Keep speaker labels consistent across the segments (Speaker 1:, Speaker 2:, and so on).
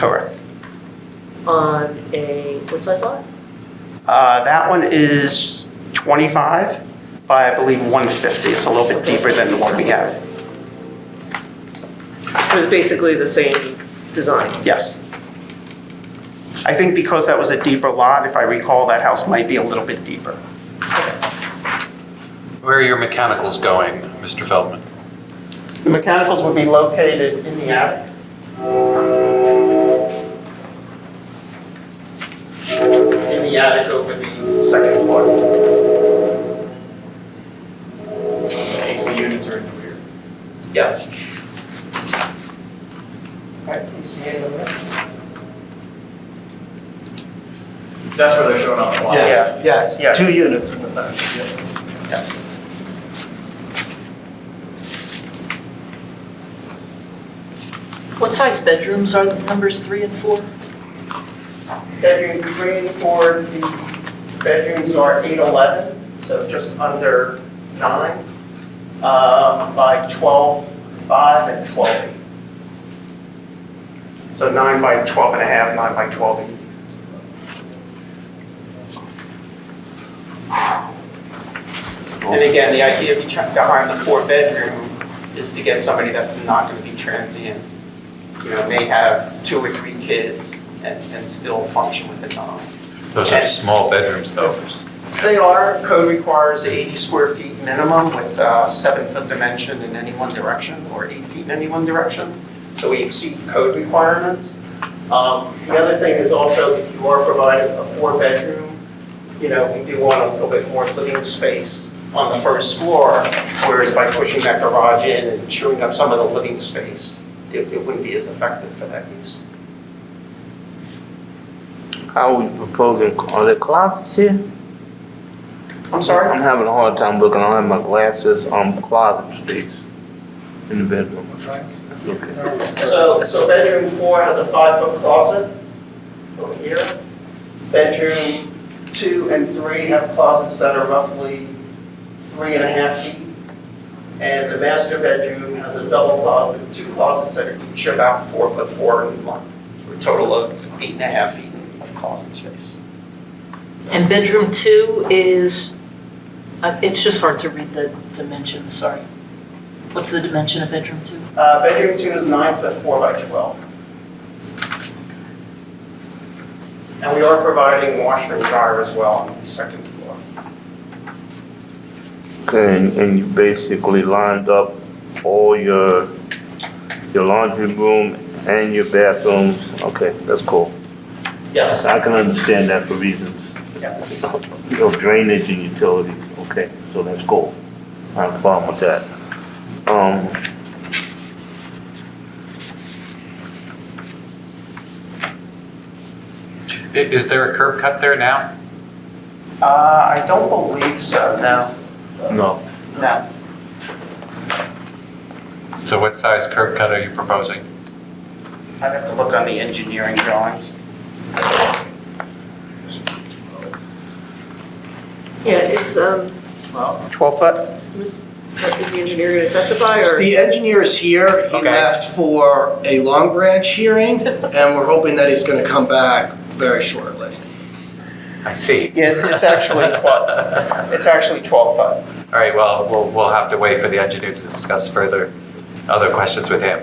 Speaker 1: Correct.
Speaker 2: on a, what size lot?
Speaker 1: Uh, That one is 25 by, I believe, 150. It's a little bit deeper than what we have.
Speaker 2: It was basically the same design.
Speaker 1: Yes. I think because that was a deeper lot, if I recall, that house might be a little bit deeper.
Speaker 3: Where are your mechanicals going, Mr. Feldman?
Speaker 1: The mechanicals would be located in the attic. In the attic over the second floor.
Speaker 4: AC units are in the rear.
Speaker 1: Yes. All right, can you see it over there?
Speaker 4: That's where they're showing up.
Speaker 1: Yes,
Speaker 5: Yes,
Speaker 1: Yeah.
Speaker 5: yes, two units in the back, yeah.
Speaker 6: What size bedrooms are the numbers three and four?
Speaker 1: Bedroom three and four, the bedrooms are eight eleven, so just under nine, um, by twelve five and twelve eight. So nine by twelve and a half, nine by twelve eight. And again, the idea of trying to hire the four bedroom is to get somebody that's not gonna be transient you know, may have two or three kids and, and still function with the town.
Speaker 3: Those are small bedrooms, though.
Speaker 1: They are, code requires 80 square feet minimum with uh, seven foot dimension in any one direction or eight feet in any one direction. So we exceed code requirements. Um, The other thing is also if you are providing a four bedroom, you know, we do want a little bit more living space on the first floor, whereas by pushing that garage in and chewing up some of the living space, it, it wouldn't be as effective for that use.
Speaker 7: How we propose it? Are there closets here?
Speaker 1: I'm sorry?
Speaker 7: I'm having a hard time looking. I don't have my glasses. Um, closet space in the bedroom. That's okay.
Speaker 1: So, so bedroom four has a five-foot closet over here. Bedroom two and three have closets that are roughly three and a half feet. And the master bedroom has a double closet, two closets that are each about four foot four in length. for A total of eight and a half feet of closet space.
Speaker 6: And bedroom two is, uh, it's just hard to read the dimensions, sorry. What's the dimension of bedroom two?
Speaker 1: Uh, bedroom two is nine foot four by twelve. And we are providing washer and dryer as well on the second floor.
Speaker 7: Okay, and, and you basically lined up all your your laundry room and your bathrooms. Okay, that's cool.
Speaker 1: Yes.
Speaker 7: I can understand that for reasons.
Speaker 1: Yes.
Speaker 7: You know, drainage and utilities. Okay, so that's cool. I have a problem with that. Um,
Speaker 3: I- Is there a curb cut there now?
Speaker 1: Uh, I don't believe so, no,
Speaker 7: no.
Speaker 1: no.
Speaker 3: So what size curb cut are you proposing?
Speaker 1: I'd have to look on the engineering drawings.
Speaker 2: Yeah, is, um,
Speaker 1: Twelve foot?
Speaker 2: Ms., is the engineer gonna testify or?
Speaker 5: The engineer is here, he
Speaker 1: Okay.
Speaker 5: left for a Long Branch hearing, and we're hoping that he's gonna come back very shortly.
Speaker 3: I see.
Speaker 1: Yeah, it's, it's actually twelve, it's actually twelve foot.
Speaker 3: All right, well, we'll, we'll have to wait for the engineer to discuss further other questions with him.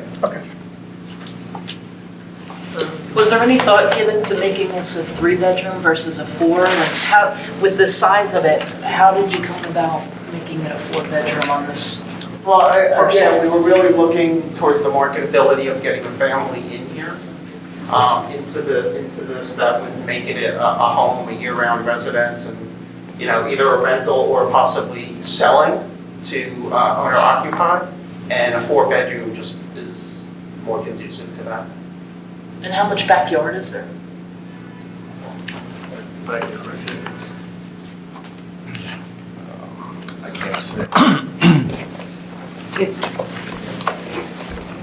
Speaker 6: Was there any thought given to making this a three-bedroom versus a four? And how, with the size of it, how did you come about making it a four-bedroom on this?
Speaker 1: Well, I- again, we were really looking towards the marketability of getting a family in here, um, into the, into this, that would make it a, a home, a year-round residence, and, you know, either a rental or possibly selling to uh, owner-occupied, and a four-bedroom just is more conducive to that.
Speaker 6: And how much backyard is there?
Speaker 5: Thank you, Rick. I can't see.
Speaker 2: It's,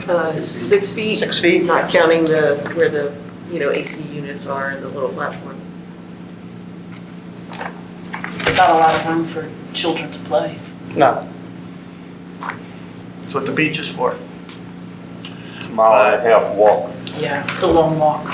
Speaker 2: uh, six feet,
Speaker 1: Six feet?
Speaker 2: not counting the, where the, you know, AC units are and the little platform.
Speaker 6: Not a lot of room for children to play.
Speaker 1: No.
Speaker 5: That's what the beach is for.
Speaker 7: It's a mile and a half walk.
Speaker 6: Yeah, it's a long walk.